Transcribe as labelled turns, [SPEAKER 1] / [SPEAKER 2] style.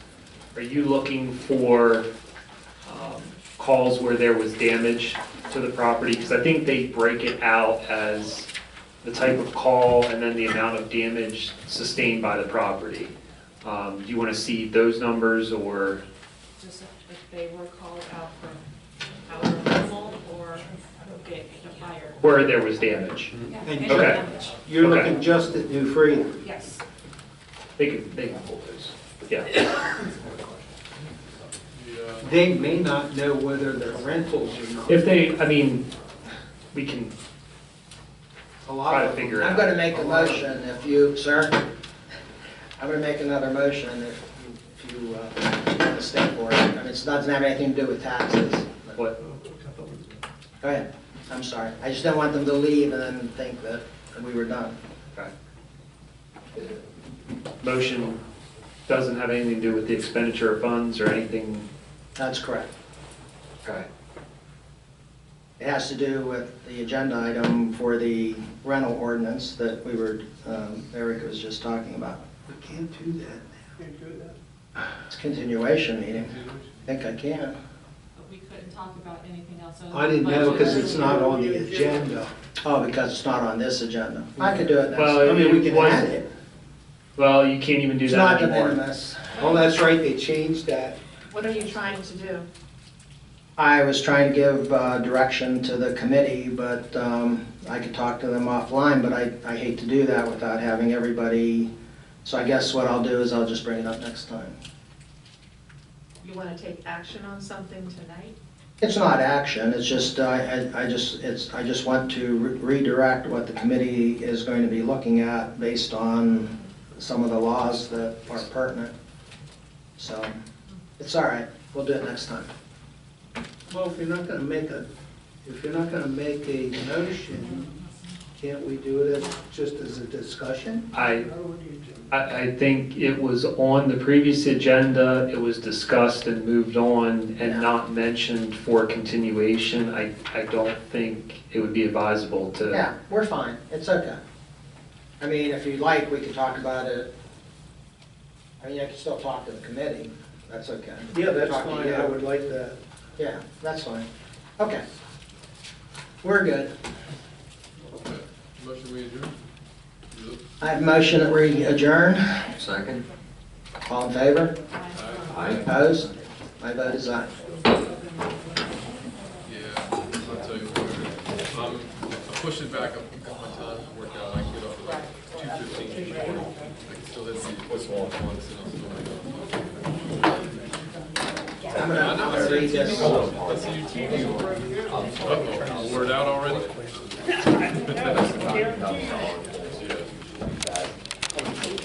[SPEAKER 1] Are you looking for um, calls where there was damage to the property? Because I think they break it out as the type of call and then the amount of damage sustained by the property. Um, Do you want to see those numbers or,
[SPEAKER 2] Just if they were called out for power removal or get the fire.
[SPEAKER 1] where there was damage?
[SPEAKER 2] Yeah,
[SPEAKER 3] And
[SPEAKER 2] any
[SPEAKER 1] Okay.
[SPEAKER 2] damage.
[SPEAKER 3] You're
[SPEAKER 1] Okay.
[SPEAKER 3] looking just at New Freedom.
[SPEAKER 2] Yes.
[SPEAKER 1] They can, they can pull those. Yeah,
[SPEAKER 3] They may not know whether they're rentals or not.
[SPEAKER 1] if they, I mean, we can,
[SPEAKER 3] A lot
[SPEAKER 1] Try to
[SPEAKER 3] of them-
[SPEAKER 1] figure it
[SPEAKER 4] I'm gonna make a motion if you, sir, I'm gonna make another motion if you, if you, uh, step for it. I mean, it doesn't have anything to do with taxes. Go
[SPEAKER 1] what,
[SPEAKER 4] ahead, I'm sorry. I just don't want them to leave and then think that we were done.
[SPEAKER 1] motion doesn't have anything to do with the expenditure of funds or anything?
[SPEAKER 4] That's correct.
[SPEAKER 1] Okay.
[SPEAKER 4] It has to do with the agenda item for the rental ordinance that we were, um, Eric was just talking about.
[SPEAKER 3] We can't do that.
[SPEAKER 4] It's a continuation meeting. I think I can.
[SPEAKER 2] But we couldn't talk about anything else. other
[SPEAKER 3] I
[SPEAKER 2] than
[SPEAKER 3] didn't know because
[SPEAKER 2] budget.
[SPEAKER 3] it's not on the agenda.
[SPEAKER 4] Oh, because it's not on this agenda. I could do it
[SPEAKER 1] Well,
[SPEAKER 4] next.
[SPEAKER 3] I mean, we can
[SPEAKER 1] it was-
[SPEAKER 3] add it.
[SPEAKER 1] Well, you can't even do
[SPEAKER 4] It's
[SPEAKER 1] that
[SPEAKER 4] not
[SPEAKER 1] anymore.
[SPEAKER 4] unanimous.
[SPEAKER 3] Oh, that's right, they changed that.
[SPEAKER 5] What are you trying to do?
[SPEAKER 4] I was trying to give uh, direction to the committee, but um, I could talk to them offline, but I, I hate to do that without having everybody. So I guess what I'll do is I'll just bring it up next time.
[SPEAKER 5] You want to take action on something tonight?
[SPEAKER 4] It's not action, it's just, uh, I, I just, it's, I just want to re- redirect what the committee is going to be looking at based on some of the laws that are pertinent. So, it's all right, we'll do it next time.
[SPEAKER 3] Well, if you're not gonna make a, if you're not gonna make a motion, can't we do it as, just as a discussion?
[SPEAKER 1] I, I, I think it was on the previous agenda, it was discussed and moved on and not mentioned for continuation. I, I don't think it would be advisable to,
[SPEAKER 4] Yeah, we're fine, it's okay. I mean, if you'd like, we could talk about it. I mean, I can still talk to the committee, that's okay.
[SPEAKER 3] Yeah, that's
[SPEAKER 4] Talk to
[SPEAKER 3] fine,
[SPEAKER 4] you.
[SPEAKER 3] I would like that.
[SPEAKER 4] Yeah, that's fine, okay. We're good.
[SPEAKER 6] Motion we adjourn?
[SPEAKER 4] I have a motion that we adjourn,
[SPEAKER 7] Second?
[SPEAKER 4] all in favor?
[SPEAKER 7] Aye.
[SPEAKER 4] Opposed? My vote is aye.
[SPEAKER 6] Yeah, I'll tell you what. Um, I pushed it back up, cut my time to work out, I can get off at like two fifteen, two forty. I can still let you what's going on, and I'll still make up.
[SPEAKER 4] I'm gonna, I'm gonna read this.
[SPEAKER 6] Let's see your TV on. Uh-oh, wore it out already?